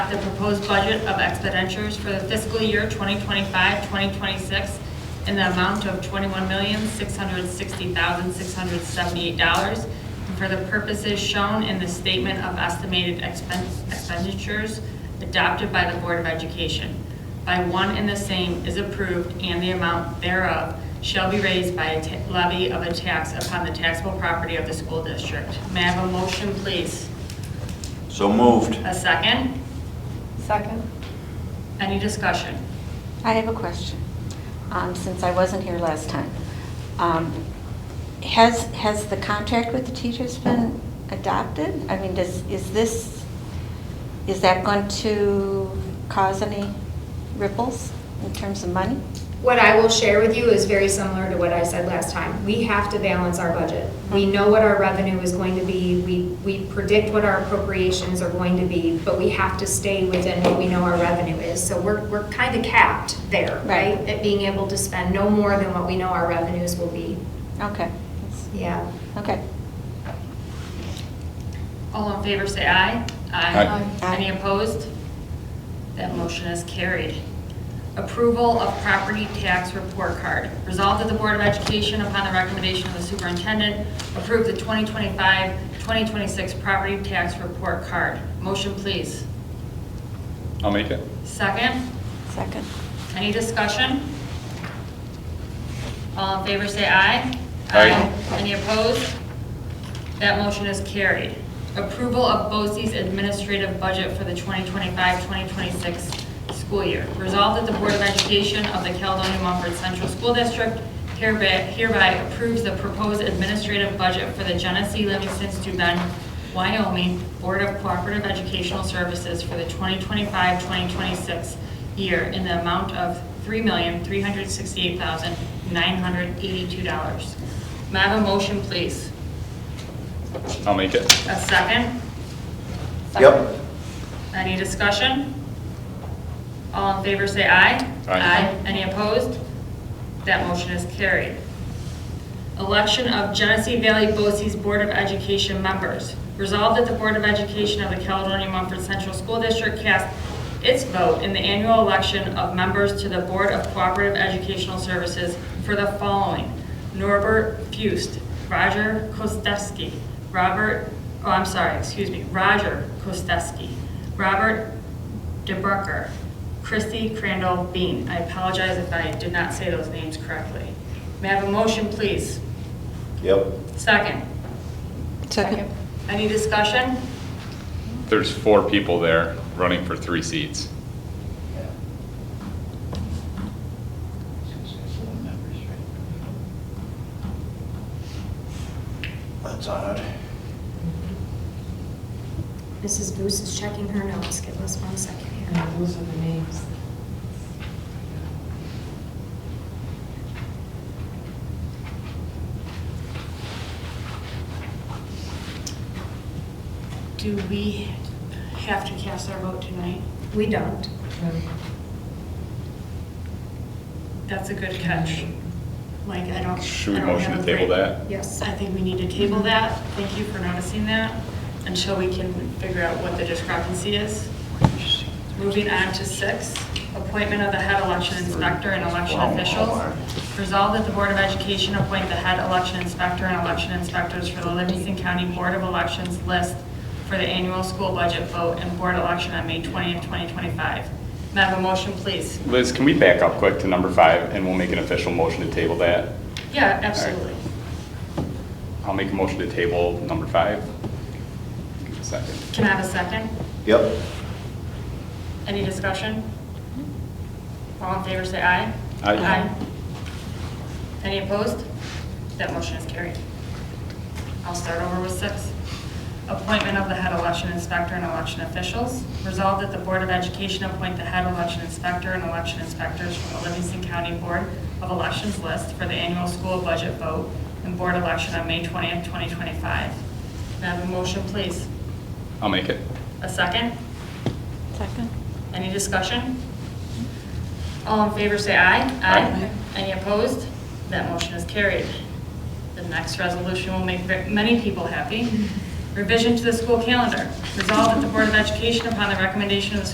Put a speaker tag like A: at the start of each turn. A: adopt the proposed budget of expenditures for the fiscal year 2025-2026 in the amount of $21,660,678 and for the purposes shown in the statement of estimated expen- expenditures adopted by the Board of Education. By one and the same is approved, and the amount thereof shall be raised by a ta- levy of a tax upon the taxable property of the school district. May I have a motion, please?
B: So moved.
A: A second?
C: Second.
A: Any discussion?
C: I have a question, um, since I wasn't here last time. Um, Has, has the contract with the teachers been adopted? I mean, does, is this, is that going to cause any ripples in terms of money?
D: What I will share with you is very similar to what I said last time. We have to balance our budget. We know what our revenue is going to be, we, we predict what our appropriations are going to be, but we have to stay within what we know our revenue is. So we're, we're kind of capped there,
C: Right.
D: right? At being able to spend no more than what we know our revenues will be.
C: Okay, that's-
D: Yeah.
C: okay.
A: All in favor, say aye.
B: Aye.
C: Aye.
A: Any opposed? That motion is carried. Approval of property tax report card. Resolved at the Board of Education upon the recommendation of the superintendent, approve the 2025-2026 property tax report card. Motion, please.
E: I'll make it.
A: Second?
C: Second.
A: Any discussion? All in favor, say aye.
E: Aye.
A: Any opposed? That motion is carried. Approval of BOCES administrative budget for the 2025-2026 school year. Resolved that the Board of Education of the Caledonia Mumford Central School District hereby hereby approves the proposed administrative budget for the Genesee Livingston Steuben, Wyoming Board of Cooperative Educational Services for the 2025-2026 year in the amount of $3,368,982. May I have a motion, please?
E: I'll make it.
A: A second?
B: Yep.
A: Any discussion? All in favor, say aye.
E: Aye.
A: Any opposed? That motion is carried. Election of Genesee Valley BOCES Board of Education members. Resolved that the Board of Education of the Caledonia Mumford Central School District cast its vote in the annual election of members to the Board of Cooperative Educational Services for the following: Norbert Fust, Roger Kostevsky, Robert, oh, I'm sorry, excuse me, Roger Kostevsky, Robert DeBrucker, Christy Crandall Bean. I apologize if I did not say those names correctly. May I have a motion, please?
B: Yep.
A: Second.
C: Second.
A: Any discussion?
E: There's four people there running for three seats.
B: That's odd.
D: Mrs. Boos is checking her notes, give us one second here.
F: Those are the names.
A: Do we have to cast our vote tonight?
D: We don't.
A: That's a good catch. Like, I don't.
E: Should we
A: I don't
E: motion
A: have
E: to
A: a
E: table
A: great-
E: that?
D: Yes.
A: I think we need to table that. Thank you for noticing that until we can figure out what the discrepancy is. Moving on to six, appointment of the head election inspector and election officials. Resolved that the Board of Education appoint the head election inspector and election inspectors for the Livingston County Board of Elections list for the annual school budget vote and board election on May 20th, 2025. May I have a motion, please?
E: Liz, can we back up quick to number five and we'll make an official motion to table that?
A: Yeah, absolutely.
E: I'll make a motion to table number five. Give me a Second.
A: Can I have a second?
B: Yep.
A: Any discussion? All in favor, say aye.
E: Aye.
A: Any opposed? That motion is carried. I'll start over with six. Appointment of the head election inspector and election officials. Resolved that the Board of Education appoint the head election inspector and election inspectors from the Livingston County Board of Elections list for the annual school budget vote and board election on May 20th, 2025. May I have a motion, please?
E: I'll make it.
A: A second?
C: Second.
A: Any discussion? All in favor, say aye.
E: Aye.
A: Any opposed? That motion is carried. The next resolution will make ve- many people happy. Revision to the school calendar. Resolved at the Board of Education upon the recommendation of the